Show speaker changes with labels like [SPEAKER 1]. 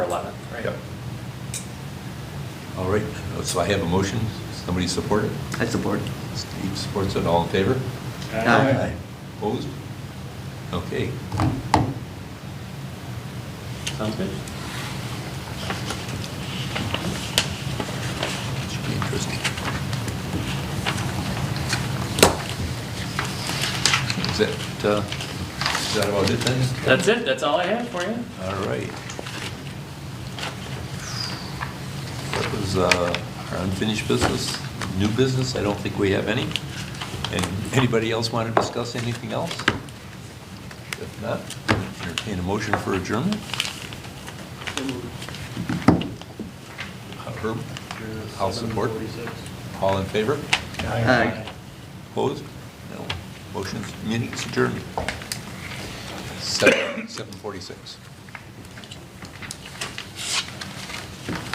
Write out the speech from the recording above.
[SPEAKER 1] 11th, right?
[SPEAKER 2] Yep. All right, uh, so I have a motion. Somebody support it?
[SPEAKER 3] I support.
[SPEAKER 2] Steve supports it. All in favor?
[SPEAKER 3] Aye.
[SPEAKER 2] Opposed? Okay.
[SPEAKER 1] Sounds good.
[SPEAKER 2] Should be interesting. Is that, uh, is that about it then?
[SPEAKER 1] That's it, that's all I have for you.
[SPEAKER 2] All right. That was uh, our unfinished business. New business, I don't think we have any. And anybody else want to discuss anything else? If not, entertain a motion for adjournment. Uh, Herb, I'll support. All in favor?
[SPEAKER 3] Aye.
[SPEAKER 2] Opposed? No. Motion's, meeting's adjourned. Seven- 7:46.